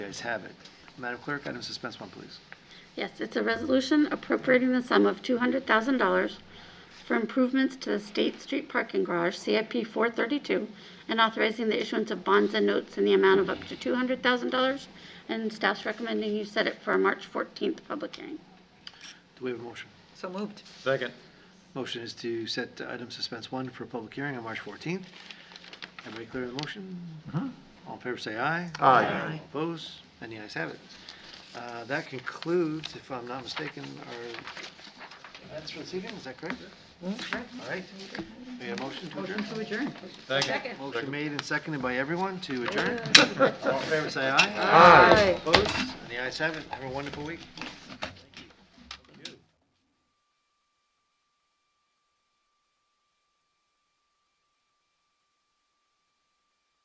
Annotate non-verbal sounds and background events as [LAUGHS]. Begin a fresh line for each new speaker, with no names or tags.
ayes have it. Madam Clerk, item suspense one, please.
Yes, it's a resolution appropriating the sum of $200,000 for improvements to the State Street Parking Garage, CIP 432, and authorizing the issuance of bonds and notes in the amount of up to $200,000, and staff's recommending you set it for a March 14th public hearing.
Do we have a motion?
So moved.
Second.
Motion is to set item suspense one for public hearing on March 14th. Everybody clear on the motion? All in favor, say aye.
Aye.
All Opposed? And the ayes have it. Uh, That concludes, if I'm not mistaken, our, that's for this evening, is that correct? All right. We have a Mm-hmm. motion to adjourn?
To adjourn.
Second.
Motion made and seconded by everyone [LAUGHS] to adjourn. All in favor, say aye.
Aye.
Opposed? And the ayes have it. Have a wonderful week.